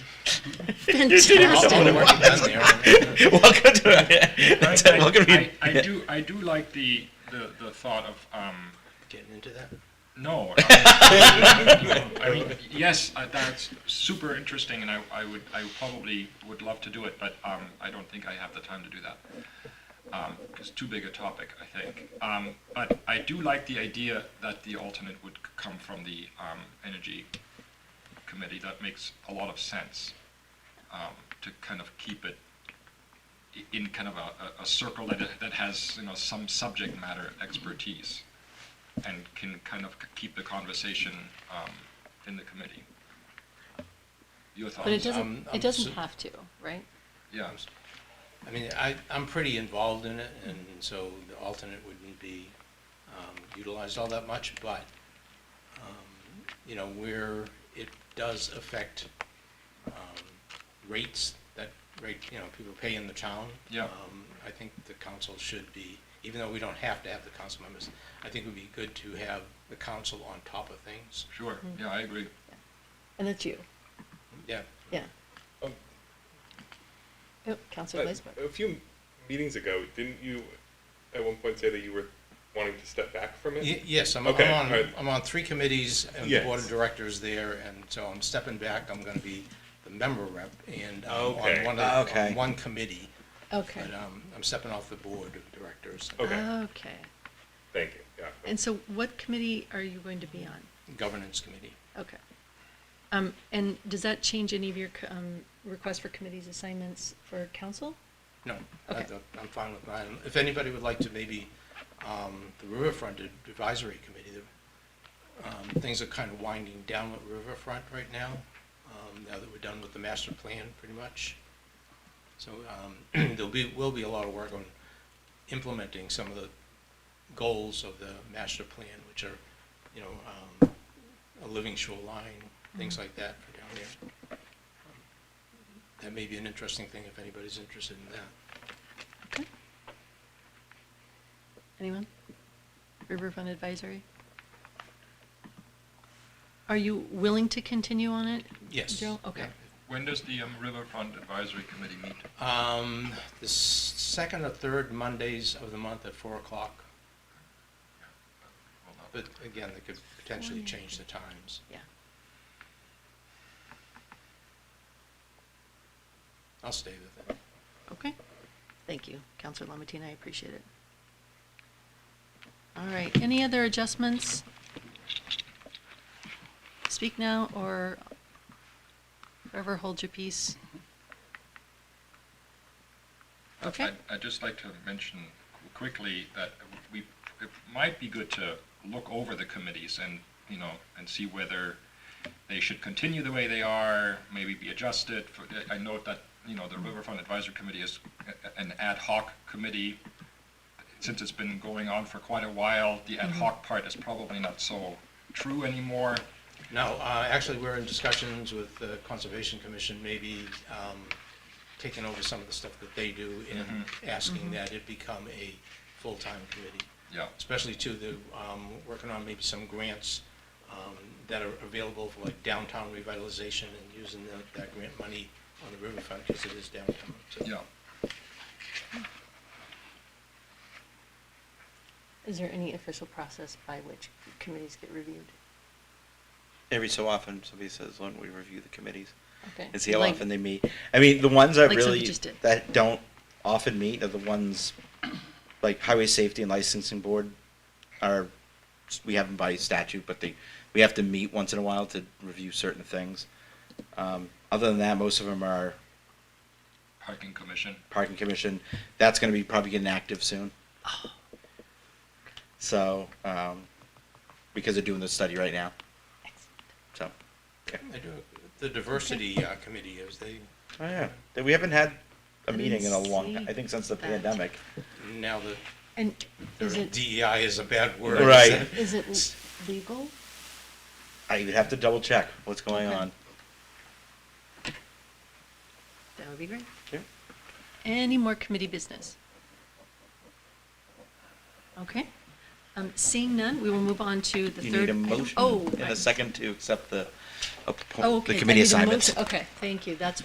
You didn't even know what it Fantastic. was. Well done there. Welcome to I- it. I- Welcome to I, I do, I do like the, the, the thought of, um, Getting into that? no. I I mean, yes, uh, that's super interesting, and I, I would, I probably would love to do it, but, um, I don't think I have the time to do that. Um, it's too big a topic, I think. Um, but I do like the idea that the alternate would c- come from the, um, energy committee. That makes a lot of sense, um, to kind of keep it i- in kind of a, a- a circle that, that has, you know, some subject matter expertise and can kind of keep the conversation um, in the committee. Your thoughts? it doesn't- Um, It I'm doesn't su- have to, right? Yeah, I mean, I, I'm pretty involved in it, and so the alternate wouldn't be um, utilized all that much, but, um, you know, where it does affect um, rates, that rate, you know, people pay in the town. Yeah. um, I think the council should be, even though we don't have to have the council members, I think it would be good to have the council on top of things. sure, yeah, I agree. And that's you, Yeah, yeah. Um, Oh, Uh, Counselor Lisbon. A few meetings ago, didn't you at one point say that you were wanting to step back from it? Y- Yes, I'm, I'm Okay, on, alright. I'm on three committees and the board of Yes. directors there, and so I'm stepping back, I'm gonna be the member rep, and I'm Okay. on one, Ah, of the- okay. on one committee, Okay, but, um, I'm stepping off the board of directors, Okay, okay. thank you. Yeah. And so what committee are you going to be on? governance committee. Okay. Um, and does that change any of your, c- um, requests for committees assignments for council? No, I- Okay. I'm fine with mine. If anybody would like to maybe, um, the Riverfront Advisory Committee, the, um, things are kind of winding down with Riverfront right now, um, now that we're done with the master plan, pretty much. So, um, there'll be, will be a lot of work on implementing some of the goals of the master plan, which are, you know, um, a living shoreline, things Mm-hmm. like that for down there. That may be an interesting thing if anybody's interested in that. Okay. Anyone? Riverfront Advisory? Are you willing to continue on it? Yes. Joe? Okay. When does the um, Riverfront Advisory Committee meet? Um, the s- second or third Mondays of the month at four o'clock, Well, not- but again, they could potentially change the times. Yeah. I'll stay with it. Okay. Thank you, Counselor Lamatina. I appreciate it. All right. Any other adjustments? Speak now or forever hold your peace. Okay. I'd- I'd just like to mention quickly that we, it might be good to look over the committees and, you know, and see whether they should continue the way they are, maybe be adjusted. For- I note that, you know, the Riverfront Advisory Committee is a- a- an ad hoc committee. Since it's been going on for quite a while, the ad hoc part is probably not so true anymore. No, uh, actually, we're in discussions with the Conservation Commission, maybe, um, taking over some of the stuff that they do and asking that it become a full-time committee. Yeah, especially to the, um, working on maybe some grants, um, that are available for like downtown revitalization and using that, that grant money on the riverfront, because it is downtown, so. yeah. Is there any official process by which committees get reviewed? Every so often, somebody says, "Why don't we review the committees Okay. and see how Like- often they meet?" I mean, the ones that Like something really just did. that don't often meet are the ones like Highway Safety and Licensing Board are. We have them by statute, but they we have to meet once in a while to review certain things. Um, other than that, most of them are Parking Commission. Parking Commission. That's going to be probably getting active soon. Oh. So, um, because they're doing the study right now. So, yeah. I do, the diversity uh, committee is, they, Oh, yeah. That We haven't had a I meeting in a didn't long, see I think since the that. pandemic. now the, And is the it, DEI is a bad word. Right. is it l- legal? I would have to double check what's going Okay. on. That would be great. Yeah. Any more committee business? Okay. Um, Seeing none, we will move on to the You third. need a item. motion Oh, and I- a second to accept the, oh, appoint- okay. the I committee need a motion. assignments. Okay, thank you. That's